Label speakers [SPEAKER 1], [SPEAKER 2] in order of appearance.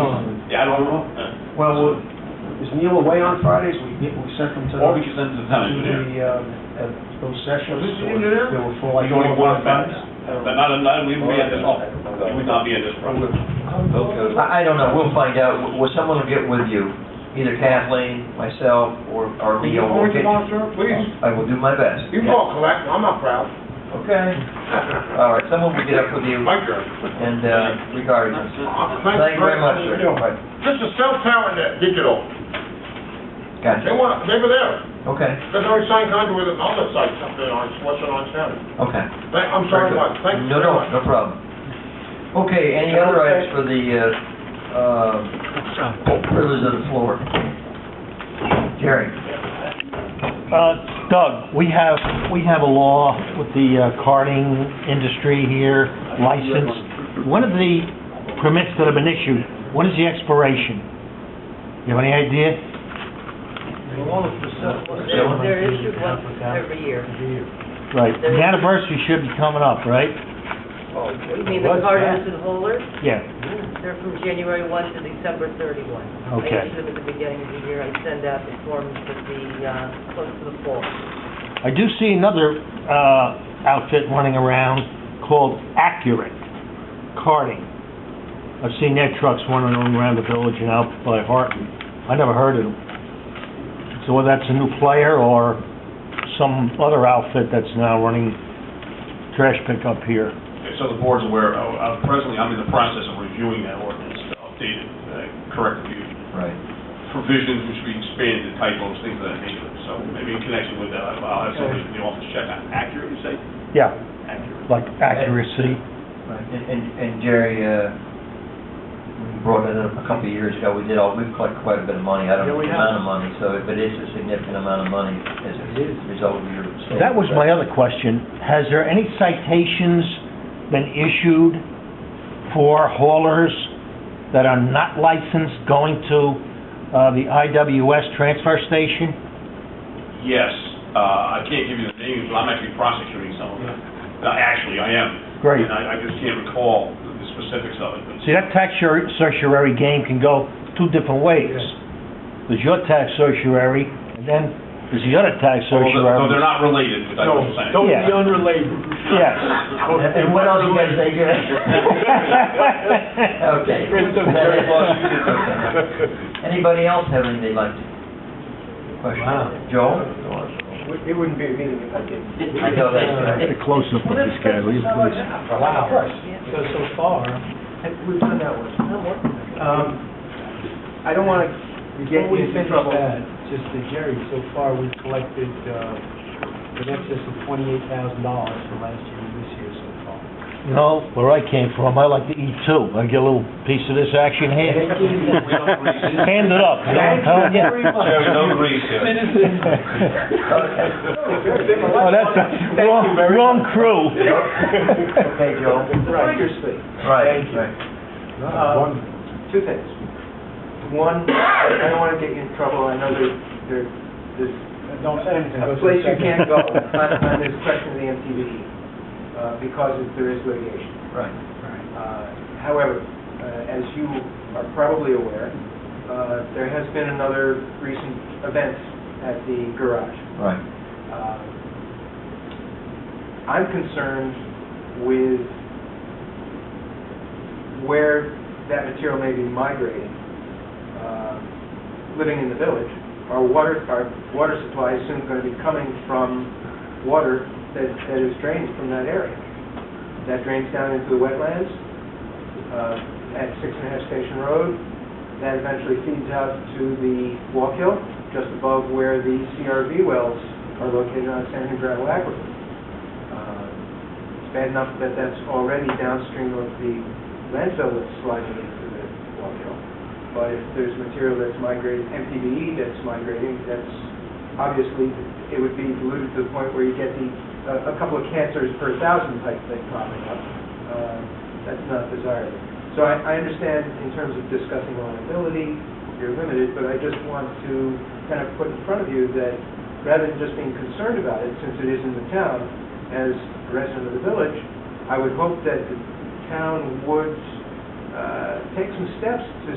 [SPEAKER 1] Um,
[SPEAKER 2] Yeah, I don't know.
[SPEAKER 1] Well, we'll- is Neil away on Fridays? We get, we sent them to.
[SPEAKER 2] Uh, Or we could send it to the
[SPEAKER 1] To
[SPEAKER 2] town engineer.
[SPEAKER 1] the, uh, at those sessions.
[SPEAKER 2] Who's the engineer?
[SPEAKER 1] They were full,
[SPEAKER 2] Like
[SPEAKER 1] like.
[SPEAKER 2] only
[SPEAKER 1] four or
[SPEAKER 2] one
[SPEAKER 1] five.
[SPEAKER 2] offense. But not, not, we would be at this all. We would not be at this problem.
[SPEAKER 3] I, I don't know, we'll find out, W- will someone will get with you, either Kathleen, myself, or, or
[SPEAKER 4] Can
[SPEAKER 3] Neil.
[SPEAKER 4] you
[SPEAKER 3] will
[SPEAKER 4] orange
[SPEAKER 3] get
[SPEAKER 4] monster, please?
[SPEAKER 3] I will do my best.
[SPEAKER 4] You call collect, I'm not proud.
[SPEAKER 3] Okay, all right, someone will get up with you
[SPEAKER 4] My turn.
[SPEAKER 3] and, uh, regard you. Thank you very much, sir. Right.
[SPEAKER 4] This is cell tower net, digital. They
[SPEAKER 3] Gotcha,
[SPEAKER 4] want, they were there.
[SPEAKER 3] okay,
[SPEAKER 4] There's already signed contract with another site up in on, Western Orange County.
[SPEAKER 3] okay.
[SPEAKER 4] Thank, I'm sorry,
[SPEAKER 3] Very good.
[SPEAKER 4] Mike, thank you
[SPEAKER 3] No,
[SPEAKER 4] very
[SPEAKER 3] no,
[SPEAKER 4] much.
[SPEAKER 3] no problem. Okay, any other items for the, uh, uh, privilege of the floor? Jerry?
[SPEAKER 5] Uh, Doug, we have, we have a law with the uh, carding industry here, license. One of the permits that have been issued, when is the expiration? You have any idea?
[SPEAKER 6] They're issued once every year.
[SPEAKER 5] Right, the anniversary should be coming up, right?
[SPEAKER 6] You mean the Cardinals and Holers?
[SPEAKER 5] Yeah,
[SPEAKER 6] They're from January 1 to December 31.
[SPEAKER 5] Okay.
[SPEAKER 6] I issue them at the beginning of the year. I send out the forms at the, uh, close to the fall.
[SPEAKER 5] I do see another, uh, outfit running around called Accurate Carding. I've seen their trucks running around the village and out by Harton. I never heard of them. So whether that's a new player or some other outfit that's now running trash pickup here.
[SPEAKER 2] So the board's aware, uh, uh, presently, I'm in the process of reviewing that ordinance to update it, uh, correct a few
[SPEAKER 3] Right.
[SPEAKER 2] provisions which we expanded, typos, things of that nature. So maybe in connection with that, I'll have somebody in the office check on accurate, you say?
[SPEAKER 5] Yeah,
[SPEAKER 2] Accurate.
[SPEAKER 5] like accuracy.
[SPEAKER 3] Right, and, and and Jerry, uh, we brought it up a couple of years ago, we did all, we've collected quite a bit of money, I don't know the amount of money, so, but it's a significant amount of money as a result of your.
[SPEAKER 5] That was my other question. Has there any citations been issued for haulers that are not licensed going to uh, the IWS transfer station?
[SPEAKER 2] Yes, uh, I can't give you the names, but I'm actually prosecuting some of them. Uh, Actually, I am.
[SPEAKER 5] Great.
[SPEAKER 2] And I I just can't recall the specifics of it, but
[SPEAKER 5] See, that tax sur- certiorari game can go two different ways. There's your tax certiorari, and then there's the other tax
[SPEAKER 2] Well, they're- No, they're
[SPEAKER 5] certiorari.
[SPEAKER 2] not related, but that's what I'm saying.
[SPEAKER 5] don't be Yeah.
[SPEAKER 4] unrelated.
[SPEAKER 5] Yes.
[SPEAKER 3] And and what else you guys think? Okay. Anybody else have anything they'd like to? Question? Joel?
[SPEAKER 4] It wouldn't be a meeting if I didn't.
[SPEAKER 3] I know that.
[SPEAKER 5] A close-up of this guy, will you please?
[SPEAKER 4] Wow.
[SPEAKER 1] So, so far, we've done that one. Um, I don't want to get
[SPEAKER 7] Before we
[SPEAKER 1] into
[SPEAKER 7] finish
[SPEAKER 1] trouble.
[SPEAKER 7] that, just to Jerry, so far, we've collected, uh, in excess of twenty-eight thousand dollars for last year and this year so far.
[SPEAKER 5] No, where I came from, I like to eat too. I get a little piece of this action here. Hand it up, you know what I'm telling you?
[SPEAKER 2] Jerry, no grease here.
[SPEAKER 3] Okay.
[SPEAKER 5] Oh, that's, wrong, wrong crew.
[SPEAKER 3] Okay, Joel.
[SPEAKER 1] Right.
[SPEAKER 3] Right, right.
[SPEAKER 7] uh,
[SPEAKER 1] Um, Two things. One, I don't want to get you in trouble, I know there- there, there's
[SPEAKER 7] Don't say anything.
[SPEAKER 1] a place you can't go on on this question of the MTBE, uh, because it- there is litigation.
[SPEAKER 3] Right.
[SPEAKER 1] Uh, However, uh, as you are probably aware, uh, there has been another recent event at the garage.
[SPEAKER 3] Right.
[SPEAKER 1] Uh, I'm concerned with where that material may be migrating, uh, living in the village. Our water, our water supply is soon going to be coming from water that that is drained from that area. That drains down into the wetlands uh, at Six and a Half Station Road. That eventually feeds out to the Walk Hill, just above where the CRV wells are located on San Andrew Aquifer. Uh, It's bad enough that that's already downstream of the landfill that's sliding into the Walk Hill. But if there's material that's migrating, MTBE E that's migrating, that's obviously, it would be diluted to the point where you get the, uh, a- a couple of cancers per thousand type thing popping up. Uh, That's not desirable. So I, I understand in terms of discussing liability, you're limited, but I just want to kind of put in front of you that rather than just being concerned about it, since it is in the town, as a resident of the village, I would hope that the town would uh, take some steps to